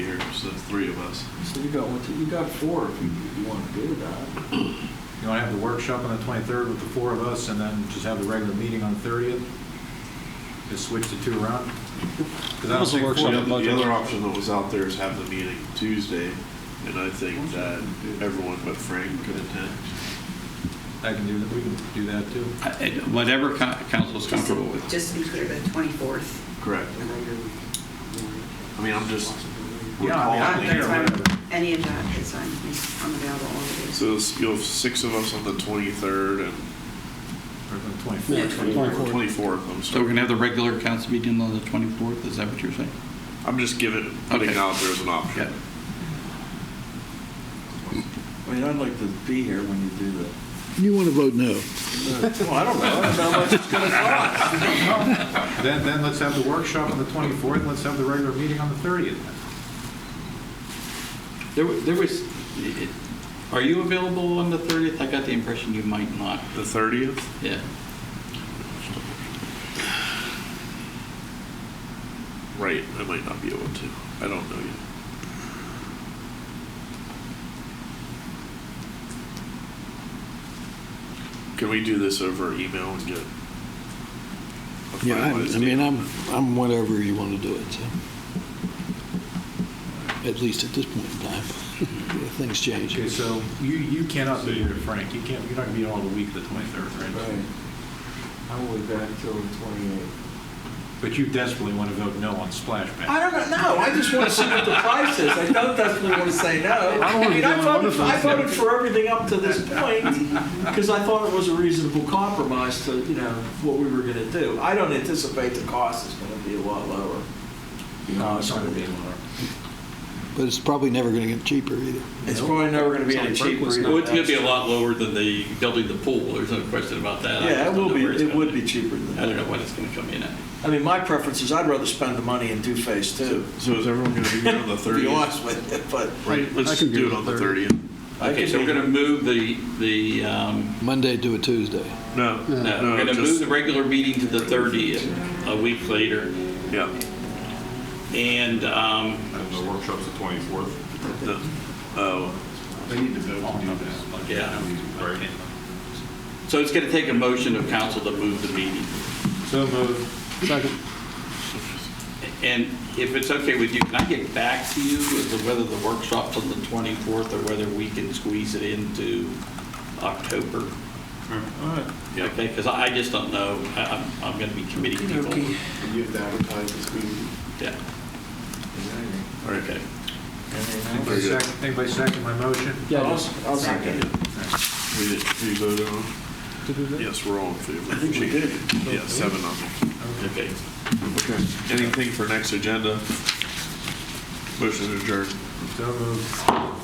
three of us. So you got, what, you got four if you, if you want to do that. You want to have the workshop on the 23rd with the four of us, and then just have the regular meeting on the 30th? Just switch the two around? Because I don't Also think works four- on The the other- the budget. other option that was out there is have the meeting Tuesday, and I think that everyone but Frank could attend. I can do that, we can do that too. I- I- Whatever co- council's Just to- comfortable with. Just to be clear, the 24th. Correct. I mean, I'm just- We're Yeah, I calling mean, I'm it. there, whatever. Any of that is, I'm I'm available all the days. So it's- you'll have six of us on the 23rd and Or on the Yeah, 24th. 24th. 24th, I'm So we're going to have sorry. the regular council meeting on the 24th, is that what you're saying? I'm just giving, putting it Okay. out there as an option. Yeah. I mean, I'd like to be here when you do that. You want to vote no. Well, I don't know, I don't know how much it's going to cost. Then, then let's have the workshop on the 24th, and let's have the regular meeting on the 30th. There wa- there was, are you available on the 30th? I got the impression you might not. The 30th? Yeah. Right, I might not be able to. I don't know yet. Can we do this over email and get? a Yeah, I finalized I mean, date? I'm, I'm whatever you want to do it, so. At least at this point in time. Things change. Okay, so you, you cannot be here, Frank, you can't, you're not going to be here all the week of the 23rd, right? Right. I will be back till the 28th. But you desperately want to vote no on splash pad. I don't know. I just want to see what the price is. I don't definitely want to say no. I don't wanna mean, be I doing voted, wonderful. I voted for everything up to this point because I thought it was a reasonable compromise to, you know, what we were going to do. I don't anticipate the cost is going to be a lot lower. No, it's not going to be anymore. But it's probably never going to get cheaper either. It's probably never going to be any It's only cheaper. Berkeley's either. not- Well, it's gonna be a lot lower than the building the pool, there's no question about that. I Yeah, it just don't will know be. where it's It gonna would be cheaper than I don't know that. what it's gonna come in at. I mean, my preference is I'd rather spend the money in two phase two. So is everyone going to be here on the To be 30th? honest with you, but Right, I let's can do do it on the 30th. I Okay, can so we're be- gonna move the, the, um, Monday to a Tuesday. No, no, we're no, gonna move just, the regular meeting to the 30th, a week later. yeah. And, um, And the workshop's the 24th, the- Oh, They need to vote to do that. Yeah. right? so it's gonna take a motion of council to move the meeting. So moved. Second. And if it's okay with you, can I get back to you as to whether the workshop's on the 24th or whether we can squeeze it into October? yeah. Okay, because I I just don't know, I- I'm, I'm going to be committing people. Okay. You have to advertise this meeting. Yeah, All right. okay. Very Anybody good. second, anybody second my motion? Yeah, I'll, I'll second it. We did, we voted on? it? Yes, we're all in favor. I think we did. Yeah, seven of them. Okay. Okay. Anything for next agenda? Motion adjourned. So moved.